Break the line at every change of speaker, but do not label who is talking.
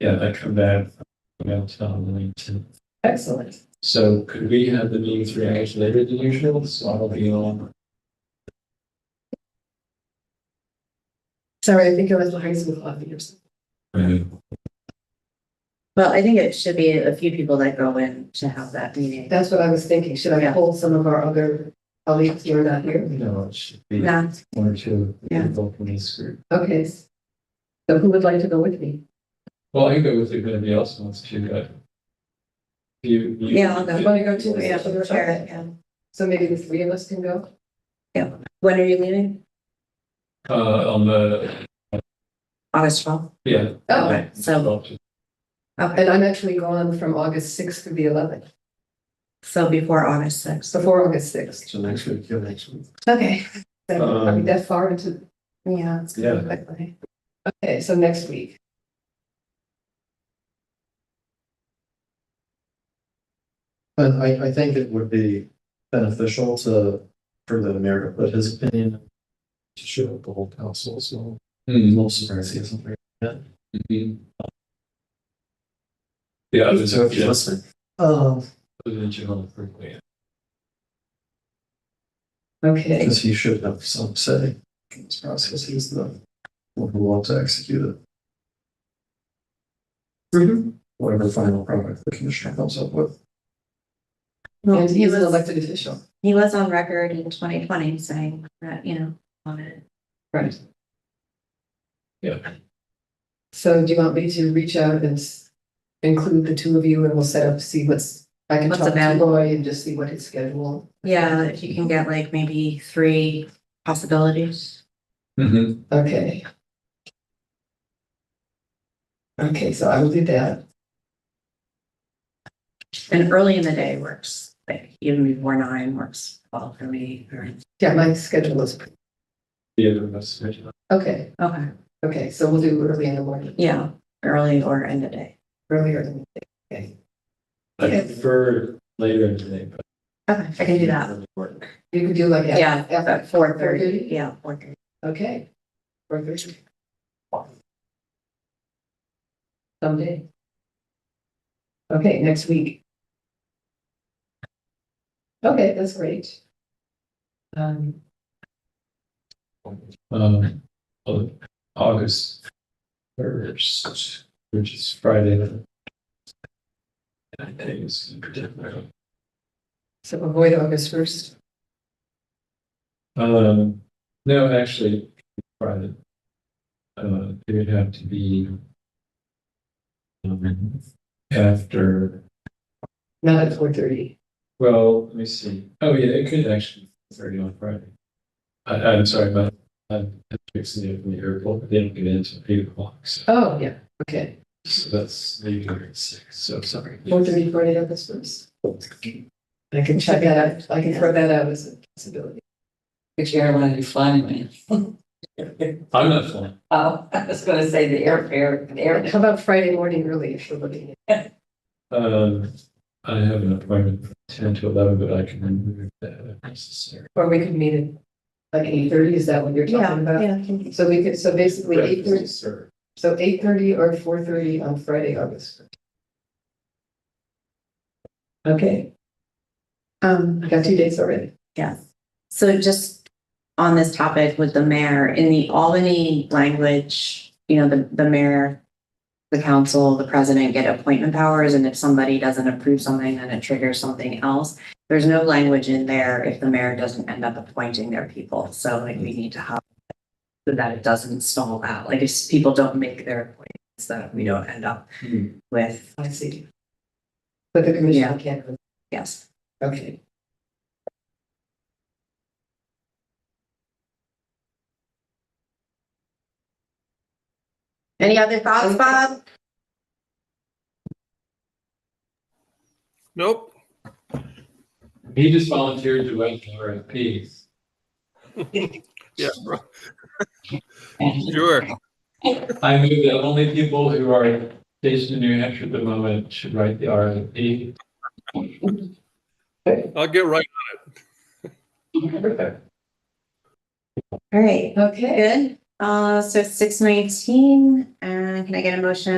Yeah, that come back about on the nineteenth.
Excellent.
So could we have the meeting three hours later than usual? So I'll be on.
Sorry, I think I was the high school coffee or something.
Well, I think it should be a few people that go in to have that meeting.
That's what I was thinking. Should I
Yeah.
hold some of our other colleagues who are not here?
No, it should be
No,
one or two
Yeah.
people from this group.
Okay. So who would like to go with me?
Well, I can go with you, if anybody else wants to go. You. you-
Yeah, I'll go.
You want to go too?
yeah, we'll share it, yeah.
So maybe the three of us can go?
When are you leaving?
Uh, on the,
August twelfth.
yeah.
Oh.
So- Okay,
And I'm actually gone from August sixth to the eleventh,
so before August sixth.
before August sixth.
So next week, Hmm, yeah, next week.
Okay. So are we
Um,
that far into?
Yeah.
it's gonna be quickly. Okay, so next week.
But I, I think it would be beneficial to, for the mayor to put his opinion to show the whole council, so
Hmm.
most of our season.
mhm. Yeah, I was,
So if you
yeah,
listen. Um,
I was in Japan for a week.
Okay.
because he should have some say in this process, he's the one who wants to execute it, whatever final product the commissioner comes up with.
Well,
And
he
he's an
was,
elected official.
he was on record in twenty twenty saying that, you know, on it.
Right.
Yeah.
So do you want me to reach out and s- include the two of you and we'll set up, see what's, I can
What's
talk to
available.
Roy and just see what his schedule.
Yeah, if you can get like maybe three possibilities.
Mhm.
Okay. Okay, so I will do that.
And early in the day works, like even before nine works well for me. or-
Yeah, my schedule is, pre-
Yeah, the rest of it.
okay,
Okay,
okay, so we'll do early in the morning,
yeah, early or end of day.
earlier than, okay.
I
Okay.
prefer later in the day, but.
Okay, I can do that.
Work.
You could do like. af-
Yeah,
After
About four thirty, yeah, four thirty.
Okay. Four thirty. Someday. Okay, next week. Okay, that's great. Um,
Um, oh, August first, which is Friday. the- I think it's in particular.
so avoid August first.
Um, no, actually, Friday. Uh, it would have to be. um, After,
Not at four thirty.
well, let me see. Oh, yeah, it could actually be thirty on Friday. I, I'm sorry, but I'm fixing it from the airport. They don't get in until eight o'clock, so.
Oh, yeah, okay.
So that's maybe hundred six, so sorry.
Four thirty, Friday, August first. I can check that out. I can throw that out as a possibility.
Which airline are you flying with?
I'm not flying.
Oh, I was gonna say the airfare, the air.
How about Friday morning early if you're looking at?
Um, I have an appointment from ten to eleven, but I can remove that if necessary.
Or we could meet at like eight thirty, is that what you're talking about?
yeah.
So we could, so basically eight
Breakfast
thirty,
is served.
so eight thirty or four thirty on Friday, August. 1st. Okay,
Um,
I got two dates already.
So just on this topic with the mayor, in the Albany language, you know, the, the mayor, the council, the president get appointment powers, and if somebody doesn't approve something, then it triggers something else. There's no language in there if the mayor doesn't end up appointing their people, so like we need to have so that it doesn't stall out, like if people don't make their appointments, that we don't end up
Hmm.
with,
I see. But the commission
Yeah.
can't,
yes.
okay.
Any other thoughts, Bob?
Nope.
He just volunteered to write the RFP.
Yeah. Sure.
I move that only people who are based in New Hampshire at the moment should write the RFP.
I'll get right.
All right,
Okay.
good. Uh, so six nineteen, and can I get a motion